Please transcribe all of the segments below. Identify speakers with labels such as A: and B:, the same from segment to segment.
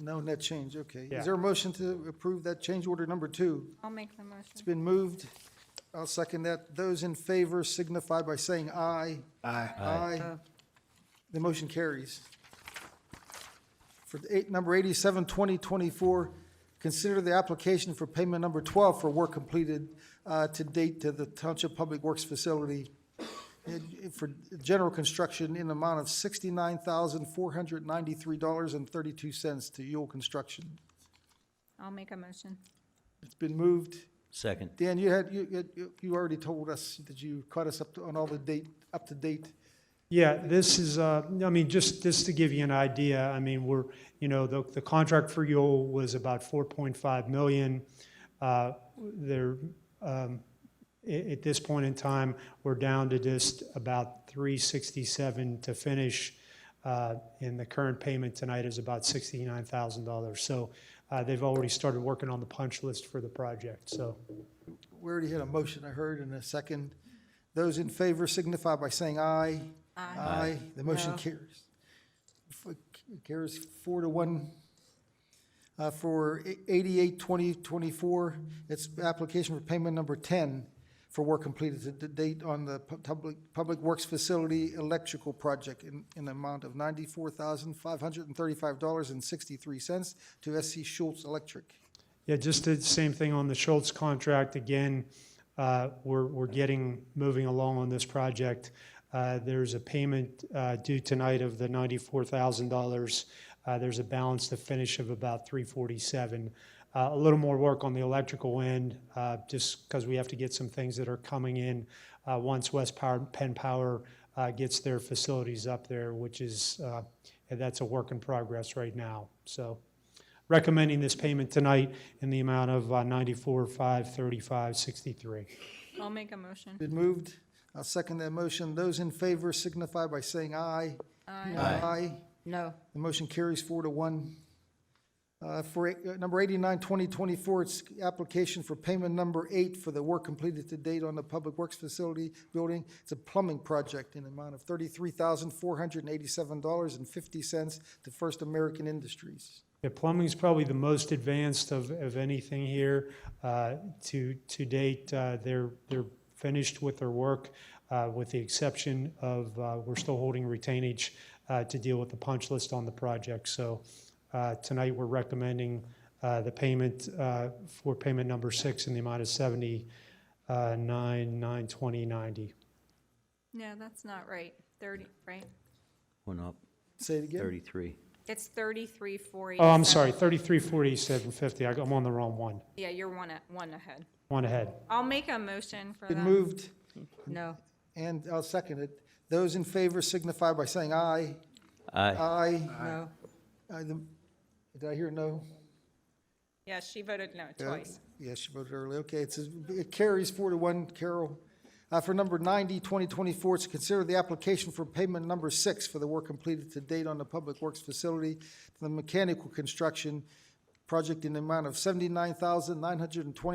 A: No net change, okay.
B: Yeah.
A: Is there a motion to approve that change order number two?
C: I'll make the motion.
A: It's been moved. I'll second that. Those in favor signify by saying aye. Aye. Aye. The motion carries. For the eight, number eighty-seven, twenty twenty-four, consider the application for payment number twelve for work completed uh, to date to the Township Public Works Facility in- for general construction in the amount of sixty-nine thousand, four hundred ninety-three dollars and thirty-two cents to Yule Construction.
C: I'll make a motion.
A: It's been moved.
D: Second.
A: Dan, you had, you- you, you- you already told us that you caught us up to, on all the date, up to date.
B: Yeah, this is, uh, I mean, just, just to give you an idea, I mean, we're, you know, the, the contract for Yule was about 4.5 million. Uh, There, um, a- at this point in time, we're down to just about 367 to finish. uh, And the current payment tonight is about $69,000. So uh, they've already started working on the punch list for the project, so.
A: We already had a motion, I heard, and a second. Those in favor signify by saying aye. Aye. The motion carries. F- Carries four to one. Uh, for e- eighty-eight, twenty, twenty-four, it's application for payment number ten for work completed to the date on the pu- public, Public Works Facility Electrical Project in, in the amount of ninety-four thousand, five hundred and thirty-five dollars and sixty-three cents to SC Schultz Electric.
B: Yeah, just the same thing on the Schultz contract. Again, uh, we're, we're getting, moving along on this project. Uh, There's a payment uh, due tonight of the $94,000. Uh, There's a balance to finish of about 347. Uh, A little more work on the electrical end, uh, just because we have to get some things that are coming in uh, once West Power, Penn Power uh, gets their facilities up there, which is, uh, that's a work in progress right now, so recommending this payment tonight in the amount of uh, 94, 5, 35, 63.
C: I'll make a motion.
A: Been moved. I'll second that motion. Those in favor signify by saying aye. Aye. Aye.
E: No.
A: The motion carries four to one. Uh, For uh, number 89, 2024, it's application for payment number eight for the work completed to date on the Public Works Facility Building. It's a plumbing project in the amount of $33,487.50 to First American Industries.
B: Yeah, plumbing's probably the most advanced of, of anything here. Uh, To, to date, uh, they're, they're finished with their work, uh, with the exception of, uh, we're still holding retainage uh, to deal with the punch list on the project. So uh, tonight, we're recommending uh, the payment uh, for payment number six in the amount of uh, 79, 9, 20, 90.
C: No, that's not right. Thirty, right?
D: Went up
A: Say it again.
D: 33.
C: It's thirty-three, four eighty-seven.
B: Oh, I'm sorry, 33, 47, 50. I got- I'm on the wrong one.
C: Yeah, you're one, a- one ahead.
B: One ahead.
C: I'll make a motion for
A: Been
C: that.
A: moved,
E: No.
A: and I'll second it. Those in favor signify by saying aye.
D: Aye.
A: Aye.
E: No.
A: Uh, the- Did I hear no?
C: Yeah, she voted no
A: Yeah,
C: twice.
A: Yeah, she voted early. Okay, it says, it carries four to one, Carol. Uh, for number 90, 2024, it's consider the application for payment number six for the work completed to date on the Public Works Facility, to the mechanical construction project in the amount of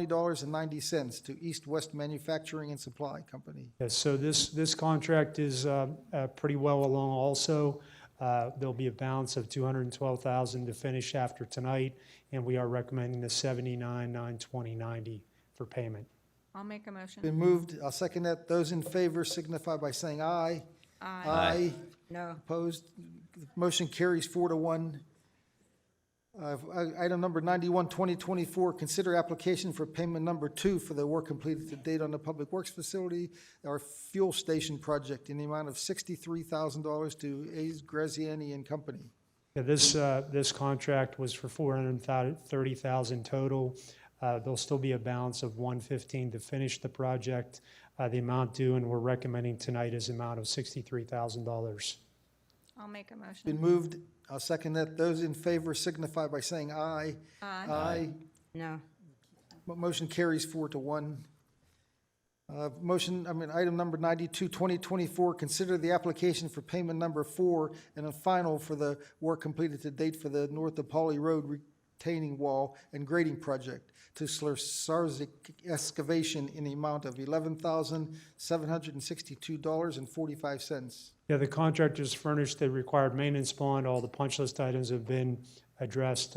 A: $79,920.90 to East West Manufacturing and Supply Company.
B: Yeah, so this, this contract is uh, uh, pretty well along also. Uh, There'll be a balance of 212,000 to finish after tonight, and we are recommending the 79, 9, 20, 90 for payment.
C: I'll make a motion.
A: Been moved, I'll second that. Those in favor signify by saying aye. Aye.
E: No.
A: Opposed? Motion carries four to one. Uh, Item number 91, 2024, consider application for payment number two for the work completed to date on the Public Works Facility, our fuel station project in the amount of $63,000 to A's Graziani and Company.
B: Yeah, This, uh, this contract was for 430,000 total. Uh, There'll still be a balance of 115 to finish the project. Uh, The amount due, and we're recommending tonight is amount of $63,000.
C: I'll make a motion.
A: Been moved. I'll second that. Those in favor signify by saying aye.
C: Aye.
A: Aye.
E: No.
A: Mo- Motion carries four to one. Uh, Motion, I mean, item number 92, 2024, consider the application for payment number four and a final for the work completed to date for the North DePauli Road retaining wall and grading project to Slursarsik excavation in the amount of $11,762.45.
B: Yeah, the contractors furnished the required maintenance bond. All the punch list items have been addressed